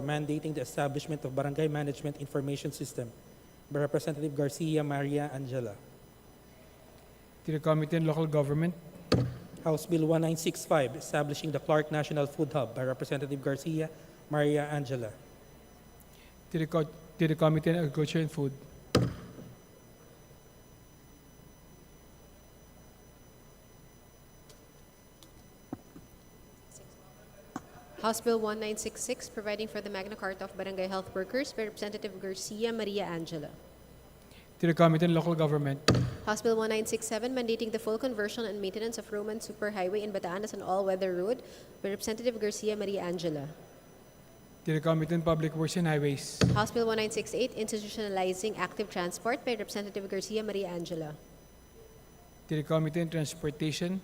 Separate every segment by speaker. Speaker 1: for mandating the establishment of Barangay Management Information System by Representative Garcia Maria Angela.
Speaker 2: to the Committee on Local Government,
Speaker 1: House Bill 1965, establishing the Clark National Food Hub by Representative Garcia Maria Angela.
Speaker 2: to the, Co- to the Committee on Agriculture and Food,
Speaker 3: House Bill 1966, providing for the Magna Carta of Barangay Health Workers by Representative Garcia Maria Angela.
Speaker 2: to the Committee on Local Government,
Speaker 3: House Bill 1967, mandating the full conversion and maintenance of Roman Superhighway in Bataan as an all-weather road by Representative Garcia Maria Angela.
Speaker 2: to the Committee on Public Works and Highways,
Speaker 3: House Bill 1968, institutionalizing active transport by Representative Garcia Maria Angela.
Speaker 2: to the Committee on Transportation,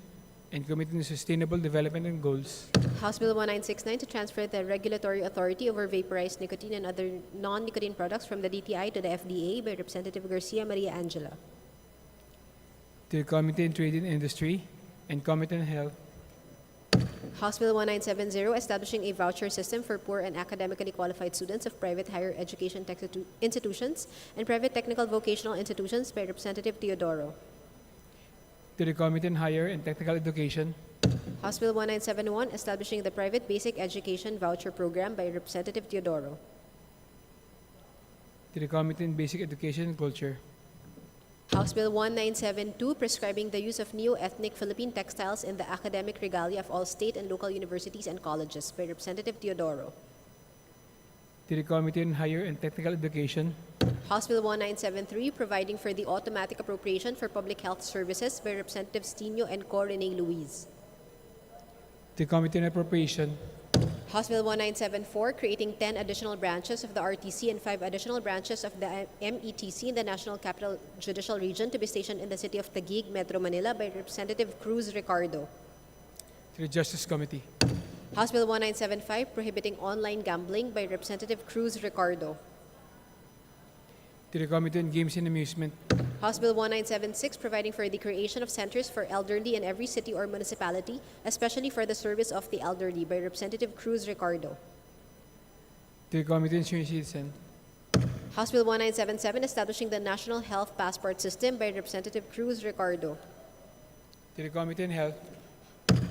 Speaker 2: and Committee on Sustainable Development and Goals,
Speaker 3: House Bill 1969, to transfer the regulatory authority over vaporized nicotine and other non-nicotine products from the DTI to the FDA by Representative Garcia Maria Angela.
Speaker 2: to the Committee on Trade and Industry, and Committee on Health,
Speaker 3: House Bill 1970, establishing a voucher system for poor and academically qualified students of private higher education texitu- institutions and private technical vocational institutions by Representative Teodoro.
Speaker 2: to the Committee on Higher and Technical Education,
Speaker 3: House Bill 1971, establishing the private basic education voucher program by Representative Teodoro.
Speaker 2: to the Committee on Basic Education and Culture,
Speaker 3: House Bill 1972, prescribing the use of neo-ethnic Philippine textiles in the academic regalia of all state and local universities and colleges by Representative Teodoro.
Speaker 2: to the Committee on Higher and Technical Education,
Speaker 3: House Bill 1973, providing for the automatic appropriation for public health services by Representatives Tino and Co. Renee Luis.
Speaker 2: to the Committee on Appropriation,
Speaker 3: House Bill 1974, creating 10 additional branches of the RTC and 5 additional branches of the METC in the National Capital Judicial Region to be stationed in the city of Taguig, Metro Manila by Representative Cruz Ricardo.
Speaker 2: to the Justice Committee,
Speaker 3: House Bill 1975, prohibiting online gambling by Representative Cruz Ricardo.
Speaker 2: to the Committee on Games and Amusement,
Speaker 3: House Bill 1976, providing for the creation of centers for elderly in every city or municipality, especially for the service of the elderly, by Representative Cruz Ricardo.
Speaker 2: to the Committee on Senior Citizen,
Speaker 3: House Bill 1977, establishing the National Health Passport System, by Representative Cruz Ricardo.
Speaker 2: to the Committee on Health,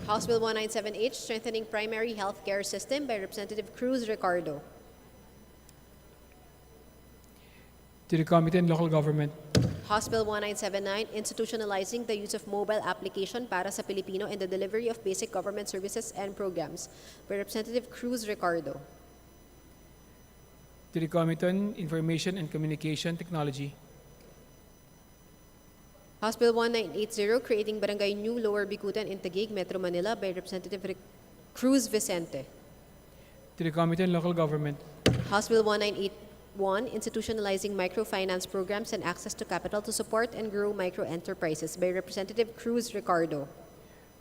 Speaker 3: House Bill 1978, strengthening primary health care system, by Representative Cruz Ricardo.
Speaker 2: to the Committee on Local Government,
Speaker 3: House Bill 1979, institutionalizing the use of mobile application para sa Pilipino in the delivery of basic government services and programs, by Representative Cruz Ricardo.
Speaker 2: to the Committee on Information and Communication Technology,
Speaker 3: House Bill 1980, creating Barangay New Lower Bikutan in Taguig, Metro Manila by Representative Ric- Cruz Vicente.
Speaker 2: to the Committee on Local Government,
Speaker 3: House Bill 1981, institutionalizing microfinance programs and access to capital to support and grow microenterprises by Representative Cruz Ricardo.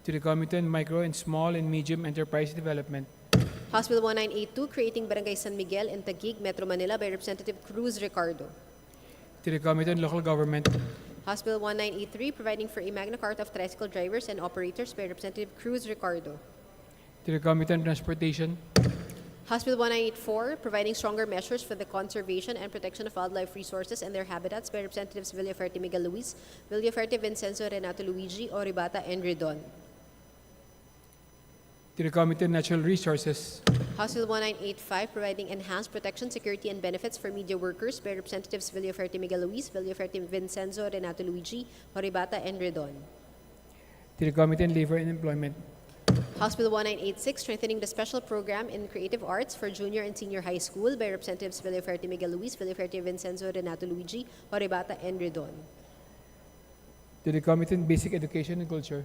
Speaker 2: to the Committee on Micro and Small and Medium Enterprise Development,
Speaker 3: House Bill 1982, creating Barangay San Miguel in Taguig, Metro Manila by Representative Cruz Ricardo.
Speaker 2: to the Committee on Local Government,
Speaker 3: House Bill 1983, providing for a Magna Carta of tricycle drivers and operators by Representative Cruz Ricardo.
Speaker 2: to the Committee on Transportation,
Speaker 3: House Bill 1984, providing stronger measures for the conservation and protection of wildlife resources and their habitats by Representatives Villaferte Miguel Luis, Villaferte Vincenzo Renato Luigi, Oribata, and Redon.
Speaker 2: to the Committee on Natural Resources,
Speaker 3: House Bill 1985, providing enhanced protection, security, and benefits for media workers by Representatives Villaferte Miguel Luis, Villaferte Vincenzo Renato Luigi, Oribata, and Redon.
Speaker 2: to the Committee on Labor and Employment,
Speaker 3: House Bill 1986, strengthening the special program in creative arts for junior and senior high school by Representatives Villaferte Miguel Luis, Villaferte Vincenzo Renato Luigi, Oribata, and Redon.
Speaker 2: to the Committee on Basic Education and Culture,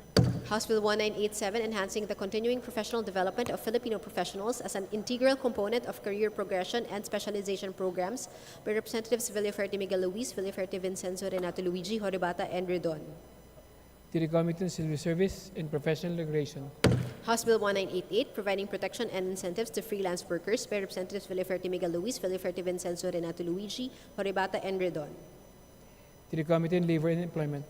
Speaker 3: House Bill 1987, enhancing the continuing professional development of Filipino professionals as an integral component of career progression and specialization programs by Representatives Villaferte Miguel Luis, Villaferte Vincenzo Renato Luigi, Horibata, and Redon.
Speaker 2: to the Committee on Civil Service and Professional Regulation,
Speaker 3: House Bill 1988, providing protection and incentives to freelance workers by Representatives Villaferte Miguel Luis, Villaferte Vincenzo Renato Luigi, Horibata, and Redon.
Speaker 2: to the Committee on Labor and Employment,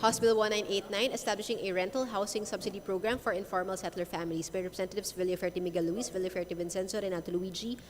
Speaker 3: House Bill 1989, establishing a rental housing subsidy program for informal settler families by Representatives Villaferte Miguel Luis, Villaferte Vincenzo Renato Luigi,